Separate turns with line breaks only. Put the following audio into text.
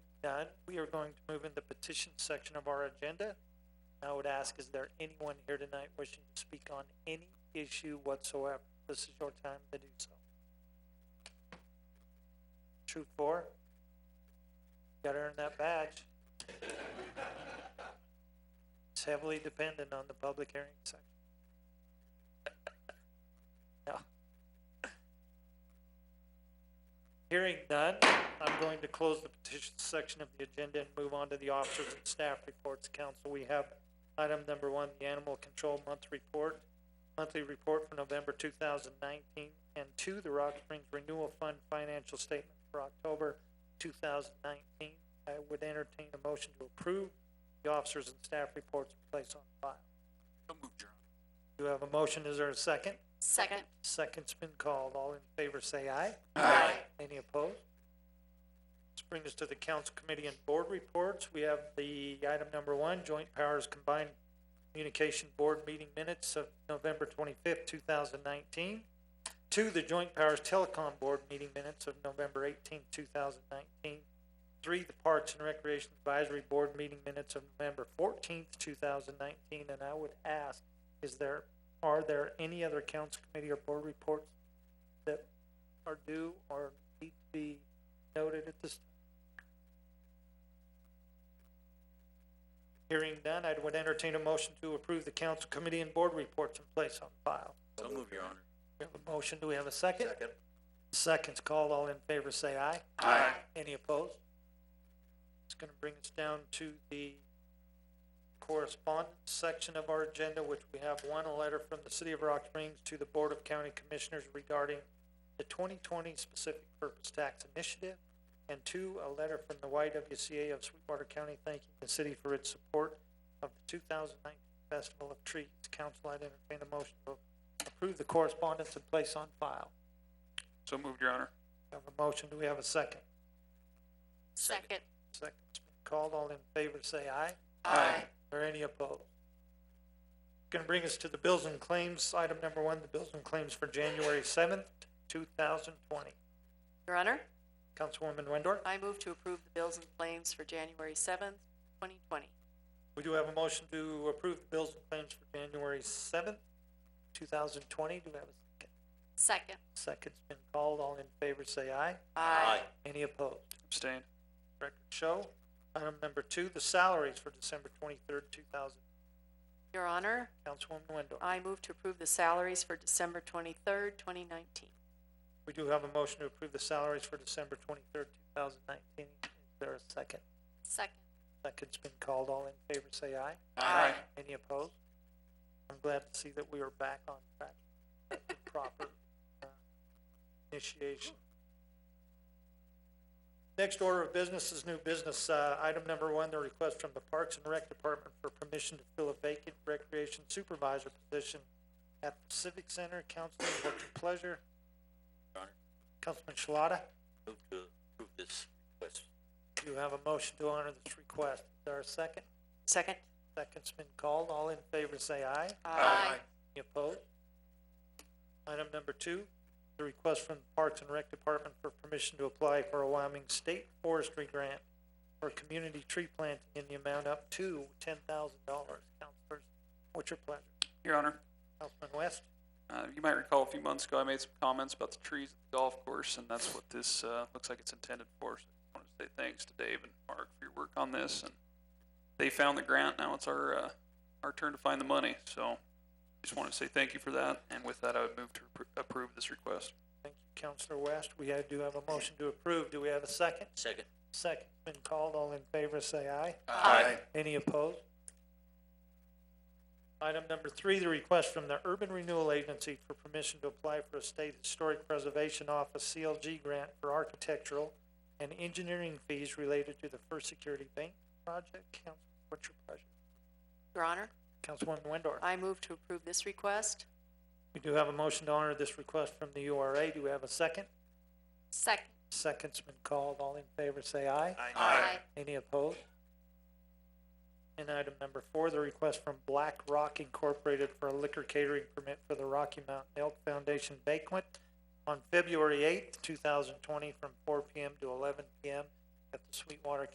done, we are going to move in the petition section of our agenda. I would ask, is there anyone here tonight wishing to speak on any issue whatsoever? This is your time to do so. Troop four, gotta earn that badge. It's heavily dependent on the public hearing section. No. Hearing none, I'm going to close the petition section of the agenda and move on to the officers and staff reports. Council, we have item number one, the animal control month report, monthly report for November two thousand nineteen, and two, the Rock Springs Renewal Fund financial statement for October two thousand nineteen. I would entertain a motion to approve the officers and staff reports placed on file.
So moved, Your Honor.
Do you have a motion? Is there a second?
Second.
Second's been called. All in favor say aye.
Aye.
Any opposed? This brings us to the council committee and board reports. We have the item number one, joint powers combined communication board meeting minutes of November twenty-fifth, two thousand nineteen. Two, the joint powers telecom board meeting minutes of November eighteenth, two thousand nineteen. Three, the parks and recreation advisory board meeting minutes of November fourteenth, two thousand nineteen. And I would ask, is there, are there any other council committee or board reports that are due or need to be noted at this? time? Hearing none, I would entertain a motion to approve the council committee and board reports in place on file.
So moved, Your Honor.
We have a motion, do we have a second? Second's called, all in favor say aye.
Aye.
Any opposed? It's gonna bring us down to the correspondence section of our agenda, which we have one, a letter from the City of Rock Springs to the Board of County Commissioners regarding the twenty twenty specific purpose tax initiative, and two, a letter from the YWCA of Sweetwater County thanking the city for its support of the two thousand nineteen Festival of Trees. Council, I'd entertain a motion to approve the correspondence and place on file.
So moved, Your Honor.
We Have a motion, do we have a second?
Second.
Second's been called, all in favor say aye.
Aye.
Or any opposed? Gonna bring us to the bills and claims, item number one, the bills and claims for January seventh, two thousand twenty.
Your Honor,
Councilwoman Wendorf,
I move to approve the bills and claims for January seventh, twenty twenty.
we do have a motion to approve the bills and claims for January seventh, two thousand twenty, do we have a second?
Second.
Second's been called, all in favor say aye.
Aye.
Any opposed?
Abstain.
Record show, item number two, the salaries for December twenty-third, two thousand,
Your Honor,
Councilwoman Wendorf.
I move to approve the salaries for December twenty-third, twenty nineteen.
We do have a motion to approve the salaries for December twenty-third, two thousand nineteen. Is there a second?
Second.
Second's been called. All in favor, say aye.
Aye.
Any opposed? I'm glad to see that we are back on track. with the Proper uh, initiation. Next order of business is new business. Uh, item number one, the request from the Parks and Rec Department for permission to fill a vacant recreation supervisor position at the Civic Center. Councilman, what's your pleasure?
Your Honor.
Councilman Shalata?
Move to approve this request.
You have a motion to honor this request. Is there a second?
Second.
Second's been called. All in favor say aye. Any opposed? Item number two, the request from the Parks and Rec Department for permission to apply for a Wyoming State Forestry Grant for community tree planting in the amount up to ten thousand dollars. Counselors, what's your pleasure?
Your Honor,
Councilman West?
uh, you might recall a few months ago, I made some comments about the trees at the golf course, and that's what this, uh, looks like it's intended for. So I want to say thanks to Dave and Mark for your work on this, and they found the grant, now it's our, uh, our turn to find the money, so just want to say thank you for that, and with that, I would move to appro- approve this request.
Thank you, Counselor West. We have- do have a motion to approve. Do we have a second?
Second.
Second's been called. All in favor say aye.
Aye.
Any opposed? Item number three, the request from the Urban Renewal Agency for permission to apply for a State Historic Preservation Office CLG grant for architectural and engineering fees related to the First Security Bank project. Council, what's your pleasure?
Your Honor,
Councilwoman Windor?
I move to approve this request.
We do have a motion to honor this request from the URA. Do we have a second?
Second.
Second's been called. All in favor, say aye. Any opposed? And item number four, the request from Black Rock Incorporated for a liquor catering permit for the Rocky Mountain Elk Foundation banquet on February eighth, two thousand twenty, from four PM to eleven PM at the Sweetwater